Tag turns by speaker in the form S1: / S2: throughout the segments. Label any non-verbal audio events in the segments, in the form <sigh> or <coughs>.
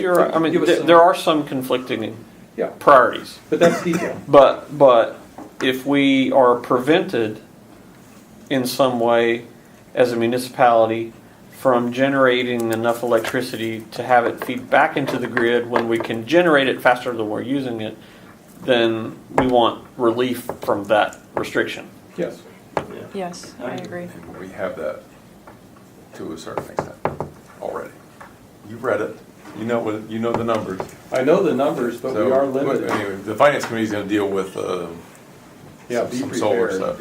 S1: You're right. I mean,
S2: Give us
S1: there,
S2: some-
S1: there are some conflicting
S2: Yeah,
S1: priorities,
S2: but that's detail.
S1: but but if we are prevented in some way as a municipality from generating enough electricity to have it feed back into the grid when we can generate it faster than we're using it, then we want relief from that restriction.
S2: Yes.
S3: Yes, I agree.
S4: And we have that to a certain extent already. You've read it, you know what, you know the numbers.
S2: I know the numbers, but we
S4: So,
S2: are
S4: but
S2: limited.
S4: anyway, The finance committee's gonna deal with, uh,
S2: Yeah, be
S4: some solar
S2: prepared.
S4: stuff.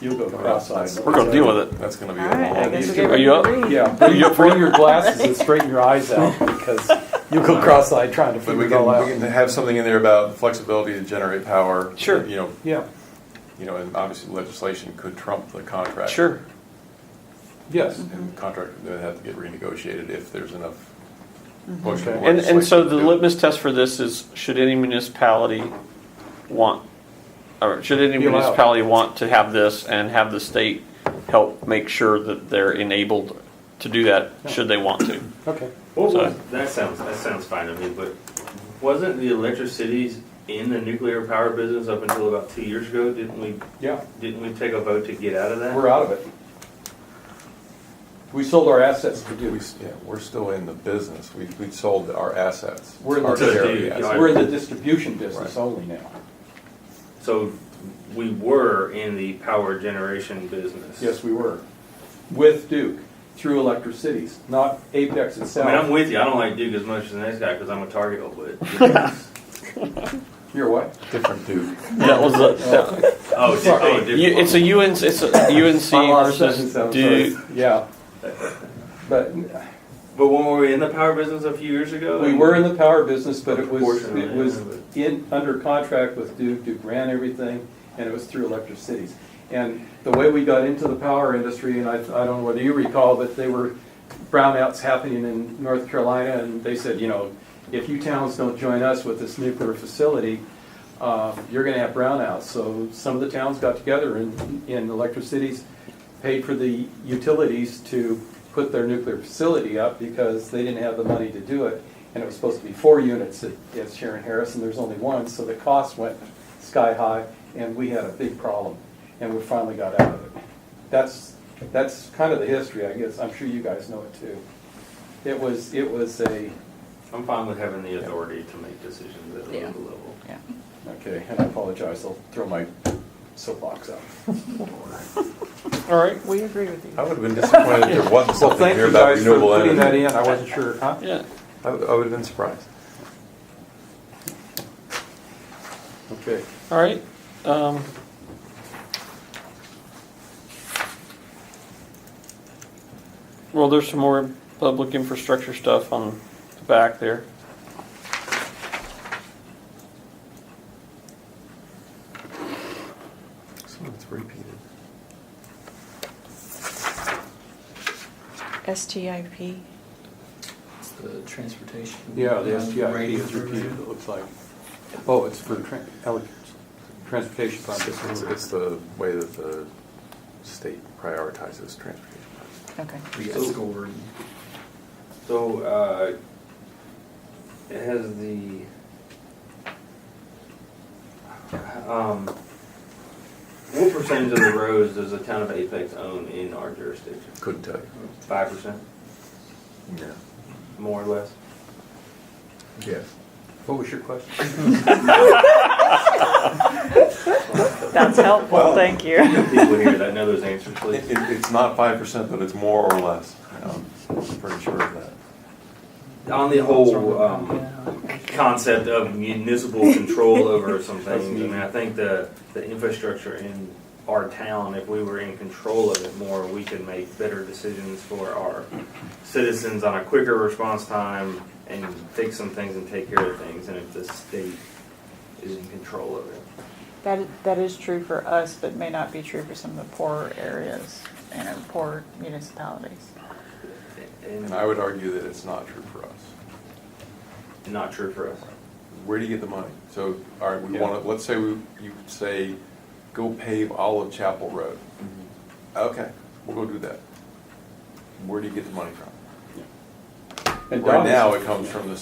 S2: You'll go cross-eyed.
S1: We're gonna deal with it.
S4: That's gonna be.
S3: All
S4: a
S3: right, I
S4: long
S3: guess
S4: issue.
S3: we're getting
S1: Are you up?
S3: ready.
S2: Yeah, bring
S1: You up
S2: your,
S1: for it?
S2: bring your glasses and straighten your eyes
S1: <laughs>
S2: out because you'll go cross-eyed trying to
S4: But
S2: figure
S4: we
S2: it
S4: can,
S2: all
S4: we can
S2: out.
S4: have something in there about flexibility to generate power.
S1: Sure.
S4: You know,
S2: Yeah,
S4: you know, and obviously legislation could trump the contract.
S1: Sure.
S2: yes.
S4: And the contract would have to get renegotiated if there's enough push.
S2: Okay.
S4: from
S1: And, and so
S4: legislation
S1: the
S4: to do it.
S1: litmus test for this is, should any municipality want, or should any
S2: Be allowed.
S1: municipality want to have this and have the state help make sure that they're enabled to do that, should they want
S2: <coughs>
S1: to?
S2: Okay.
S5: What
S1: So-
S5: was, that sounds, that sounds fine to me, but wasn't the electric cities in the nuclear power business up until about two years ago? Didn't we,
S2: Yeah,
S5: didn't we take a vote to get out of that?
S2: we're out of it. We sold our assets to
S4: We,
S2: Duke.
S4: yeah, we're still in the business. We, we sold our assets.
S2: We're in the
S4: Our share of
S5: business.
S4: assets.
S2: We're in the distribution business only now.
S5: So we were in the power generation business.
S2: Yes, we were. With Duke, through Electric Cities, not Apex
S5: I mean, I'm
S2: itself.
S5: with you. I don't like Duke as much as the next guy because I'm a
S2: <laughs>
S5: Target old,
S2: Oh,
S5: but.
S2: You're what?
S4: Different dude.
S1: That was, a- that-
S5: Oh, di-
S2: Sorry.
S5: oh,
S1: you-
S5: different.
S1: it's a UNC,
S2: <coughs>
S1: it's a
S2: My last sentence,
S1: UNC versus
S2: that was
S1: Duke.
S2: first. Yeah. But
S5: But when were we in the power business a few years ago?
S2: we were in the power business, but it was,
S5: Proportionally,
S2: it was
S5: yeah,
S2: in, under contract with Duke, Duke ran everything, and it was through Electric Cities. And the way we got into the power industry, and I, I don't know whether you recall, but they were brownouts happening in North Carolina, and they said, you know, if you towns don't join us with this nuclear facility, um, you're gonna have brownouts. So some of the towns got together and, and Electric Cities paid for the utilities to put their nuclear facility up because they didn't have the money to do it. And it was supposed to be four units at, at Sharon Harris, and there's only one, so the cost went sky high, and we had a big problem, and we finally got out of it. That's, that's kind of the history, I guess, I'm sure you guys know it too. It was, it was a,
S5: I'm fine with having the authority to make decisions at a
S3: Yeah.
S5: local level.
S3: Yeah.
S2: okay, and I apologize, I'll throw my soapbox
S4: <laughs>
S2: out.
S1: All right,
S3: We agree with you.
S4: I would have been disappointed if there
S2: <laughs>
S4: wasn't
S2: Well,
S4: something
S2: thank
S4: here
S2: you
S4: about
S2: guys for
S4: renewable
S2: putting that
S4: energy.
S2: in, I wasn't sure, huh?
S1: yeah.
S4: I would I would have been surprised.
S2: Okay.
S1: All right. Um, well, there's some more public infrastructure stuff on the back there.
S4: Some of it's repeated.
S3: STIP,
S6: It's the transportation.
S2: Yeah, the STI
S6: Radio
S2: is repeated, it looks like. Oh, it's for tran- ele- transportation
S4: It's,
S2: projects.
S4: it's the way that the state prioritizes transportation.
S3: okay.
S6: We got scored.
S5: So, uh, it has the, um, what percentage of the roads does the town of Apex own in our jurisdiction?
S4: Couldn't tell you.
S5: Five percent,
S4: Yeah.
S5: more or less?
S4: Yes.
S2: What was your question?
S3: <laughs> That's helpful,
S1: <laughs>
S3: thank you.
S5: People here that know those answers,
S4: It,
S5: please.
S4: it- it's not five percent, but it's more or less. Um, I'm pretty sure of that.
S5: On the whole, um, concept of municipal control over some things, I mean, I think the, the infrastructure in our town, if we were in control of it more, we could make better decisions for our citizens on a quicker response time and fix some things and take care of things, and if the state is in control of it.
S3: That, that is true for us, but may not be true for some of the poorer areas and our poorer municipalities.
S4: And
S5: And
S4: I would argue that it's not true for us.
S5: not true for us.
S4: Where do you get the money? So, all right, we
S2: Yeah.
S4: want to, let's say we, you say, go pave Olive Chapel Road. Okay, we'll go do that. Where do you get the money from?
S2: And
S4: Right
S2: Don's-
S4: now, it comes from the